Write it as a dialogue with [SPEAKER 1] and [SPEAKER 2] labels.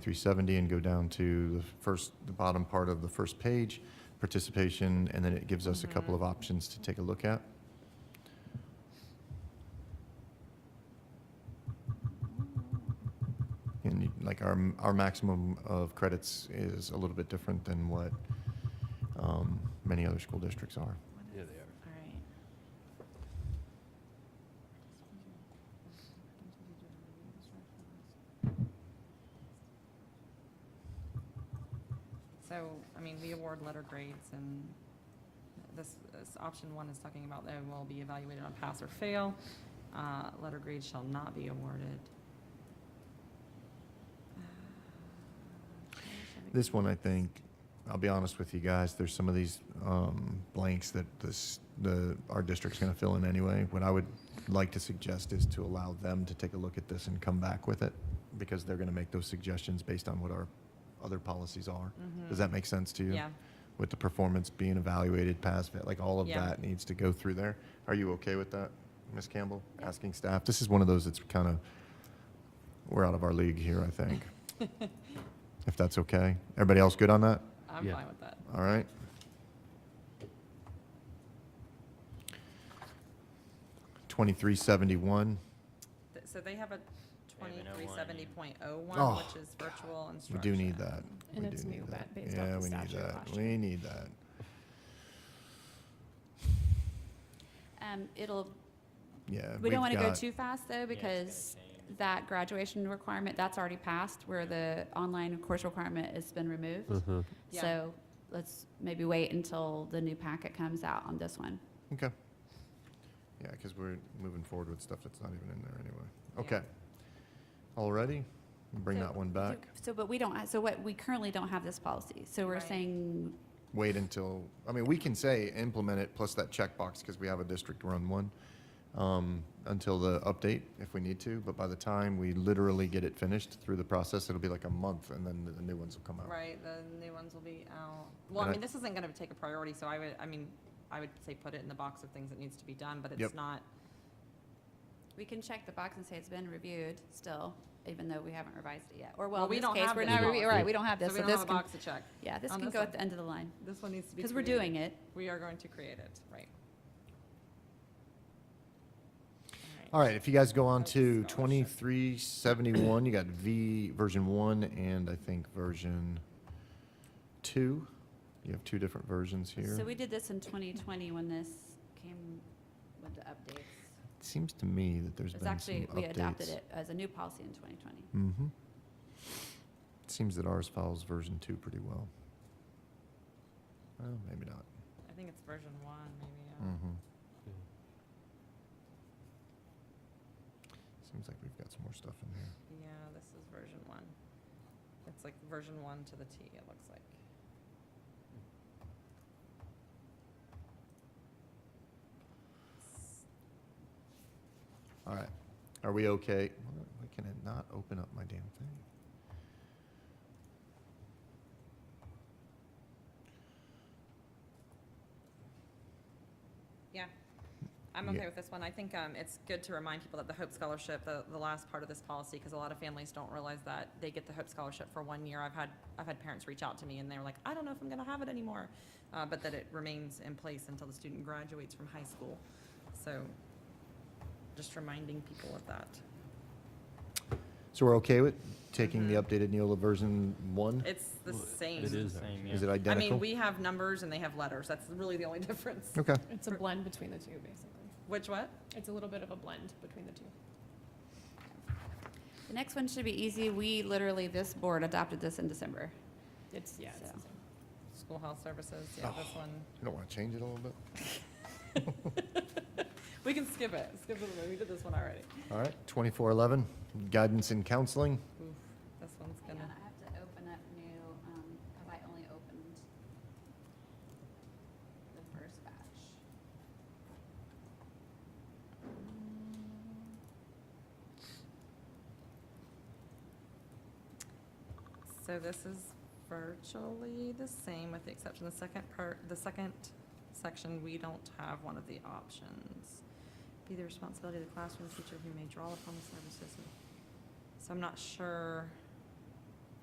[SPEAKER 1] 2370 and go down to the first, the bottom part of the first page, participation, and then it gives us a couple of options to take a look at. And you- like our, our maximum of credits is a little bit different than what um, many other school districts are.
[SPEAKER 2] Yeah, they are.
[SPEAKER 3] All right. So, I mean, we award letter grades and this, this option one is talking about they will be evaluated on pass or fail. Uh, letter grades shall not be awarded. Uh,
[SPEAKER 1] This one, I think, I'll be honest with you guys, there's some of these um, blanks that this, the, our district's gonna fill in anyway. What I would like to suggest is to allow them to take a look at this and come back with it, because they're gonna make those suggestions based on what our other policies are. Does that make sense to you?
[SPEAKER 3] Mm-hmm. Yeah,
[SPEAKER 1] With the performance being evaluated, pass, fa- like all of
[SPEAKER 3] Yeah.
[SPEAKER 1] that needs to go through there. Are you okay with that, Ms. Campbell?
[SPEAKER 3] Yeah.
[SPEAKER 1] Asking staff, this is one of those that's kind of, we're out of our league here, I think. If that's okay. Everybody else good on that?
[SPEAKER 3] I'm
[SPEAKER 2] Yeah.
[SPEAKER 3] fine with that.
[SPEAKER 1] All right. Twenty-three seventy-one.
[SPEAKER 3] Th- So they have a
[SPEAKER 4] They have an
[SPEAKER 3] twenty-three seventy point oh
[SPEAKER 1] Oh,
[SPEAKER 3] one, which is virtual
[SPEAKER 1] We
[SPEAKER 3] instruction.
[SPEAKER 1] do need that.
[SPEAKER 5] And
[SPEAKER 1] We
[SPEAKER 5] it's
[SPEAKER 1] do need
[SPEAKER 5] new,
[SPEAKER 1] that.
[SPEAKER 5] but based off
[SPEAKER 1] Yeah,
[SPEAKER 5] the
[SPEAKER 1] we need
[SPEAKER 5] statute
[SPEAKER 1] that.
[SPEAKER 5] last
[SPEAKER 1] We
[SPEAKER 5] year.
[SPEAKER 1] need that.
[SPEAKER 5] Um, it'll,
[SPEAKER 1] Yeah.
[SPEAKER 5] we
[SPEAKER 1] we've
[SPEAKER 5] don't want to go
[SPEAKER 1] got-
[SPEAKER 5] too fast though,
[SPEAKER 4] it's gonna
[SPEAKER 5] because
[SPEAKER 4] change.
[SPEAKER 5] that graduation requirement, that's already passed, where the online course requirement has been removed.
[SPEAKER 3] Yeah.
[SPEAKER 5] So let's maybe wait until the new packet comes out on this one.
[SPEAKER 1] Okay. Yeah, because we're moving forward with stuff that's not even in there anyway.
[SPEAKER 3] Yeah.
[SPEAKER 1] Okay. Already, bring
[SPEAKER 5] So-
[SPEAKER 1] that one back.
[SPEAKER 5] So, but we don't, ha- so what, we currently don't have this policy, so we're
[SPEAKER 3] Right.
[SPEAKER 5] saying,
[SPEAKER 1] Wait until, I mean, we can say implement it plus that checkbox because we have a district run one um, until the update if we need to. But by the time we literally get it finished through the process, it'll be like a month and then the- the new ones will come out.
[SPEAKER 3] Right, the new ones will be out.
[SPEAKER 1] And
[SPEAKER 3] Well,
[SPEAKER 1] I-
[SPEAKER 3] I mean, this isn't gonna take a priority, so I would, I mean, I would say put it in the box of things that needs to be done, but
[SPEAKER 1] Yep.
[SPEAKER 3] it's not,
[SPEAKER 5] we can check the box and say it's been reviewed still, even though we haven't revised it yet. Or
[SPEAKER 3] Well,
[SPEAKER 5] well, in
[SPEAKER 3] we
[SPEAKER 5] this
[SPEAKER 3] don't
[SPEAKER 5] case,
[SPEAKER 3] have
[SPEAKER 5] we're
[SPEAKER 3] this
[SPEAKER 5] not,
[SPEAKER 3] policy.
[SPEAKER 5] revi- right, we don't have
[SPEAKER 3] so
[SPEAKER 5] this,
[SPEAKER 3] we
[SPEAKER 5] so
[SPEAKER 3] don't
[SPEAKER 5] this
[SPEAKER 3] have a
[SPEAKER 5] can,
[SPEAKER 3] box to check.
[SPEAKER 5] yeah, this
[SPEAKER 3] on
[SPEAKER 5] can
[SPEAKER 3] this
[SPEAKER 5] go
[SPEAKER 3] one.
[SPEAKER 5] at the end of the line,
[SPEAKER 3] This one needs to be.
[SPEAKER 5] because we're
[SPEAKER 3] created.
[SPEAKER 5] doing it.
[SPEAKER 3] We are going to create it, right. Alright.
[SPEAKER 1] All right, if you guys go on
[SPEAKER 3] That's
[SPEAKER 1] to
[SPEAKER 3] scholarship.
[SPEAKER 1] 2371, you got V, version 1, and I think version 2. You have two different versions here.
[SPEAKER 5] So we did this in 2020 when this came with the updates.
[SPEAKER 1] It seems to me that there's
[SPEAKER 5] It's
[SPEAKER 1] been
[SPEAKER 5] actually,
[SPEAKER 1] some
[SPEAKER 5] we
[SPEAKER 1] updates.
[SPEAKER 5] adopted it as a new policy in 2020.
[SPEAKER 1] Mm-hmm. It seems that ours follows version 2 pretty well. Well, maybe not.
[SPEAKER 3] I think it's version one, maybe.
[SPEAKER 1] Mm-hmm. Seems like we've got some more stuff in here.
[SPEAKER 3] uh, Yeah, this is version one. It's like version one to the T, it looks like.
[SPEAKER 1] All right. Are we okay? Why- Why can it not open up my damn thing?
[SPEAKER 3] Yeah, I'm
[SPEAKER 1] Yeah.
[SPEAKER 3] okay with this one. I think um, it's good to remind people that the Hope Scholarship, the, the last part of this policy, because a lot of families don't realize that they get the Hope Scholarship for one year. I've had, I've had parents reach out to me and they're like, I don't know if I'm gonna have it anymore. Uh, but that it remains in place until the student graduates from high school. So just reminding people of that.
[SPEAKER 1] So we're okay with taking the
[SPEAKER 3] Mhm.
[SPEAKER 1] updated Neola version one?
[SPEAKER 3] It's the
[SPEAKER 2] Well,
[SPEAKER 3] same.
[SPEAKER 2] It is.
[SPEAKER 4] Same,
[SPEAKER 2] actually.
[SPEAKER 4] yeah.
[SPEAKER 1] Is it
[SPEAKER 3] I mean,
[SPEAKER 1] identical?
[SPEAKER 3] we have numbers and they have letters. That's really the only difference.
[SPEAKER 1] Okay,
[SPEAKER 6] It's a blend between the two, basically.
[SPEAKER 3] Which what?
[SPEAKER 6] It's a little bit of a blend between the two.
[SPEAKER 5] The next one should be easy. We literally, this board adopted this in December.
[SPEAKER 6] It's, yeah, it's
[SPEAKER 5] So.
[SPEAKER 6] the same.
[SPEAKER 3] School health services, yeah, this one.
[SPEAKER 2] Oh.
[SPEAKER 1] you don't want to change it a little bit?
[SPEAKER 3] We can skip it. Skip it. We did this one already.
[SPEAKER 1] All right, twenty-four eleven, guidance and counseling.
[SPEAKER 3] Oof, this one's
[SPEAKER 5] Hang on,
[SPEAKER 3] gonna,
[SPEAKER 5] I have to open up new, um, have I only opened the first batch?
[SPEAKER 3] so this is virtually the same with the exception, the second part, the second section, we don't have one of the options. Be the responsibility of the classroom teacher who may draw upon the services. of- So I'm not sure.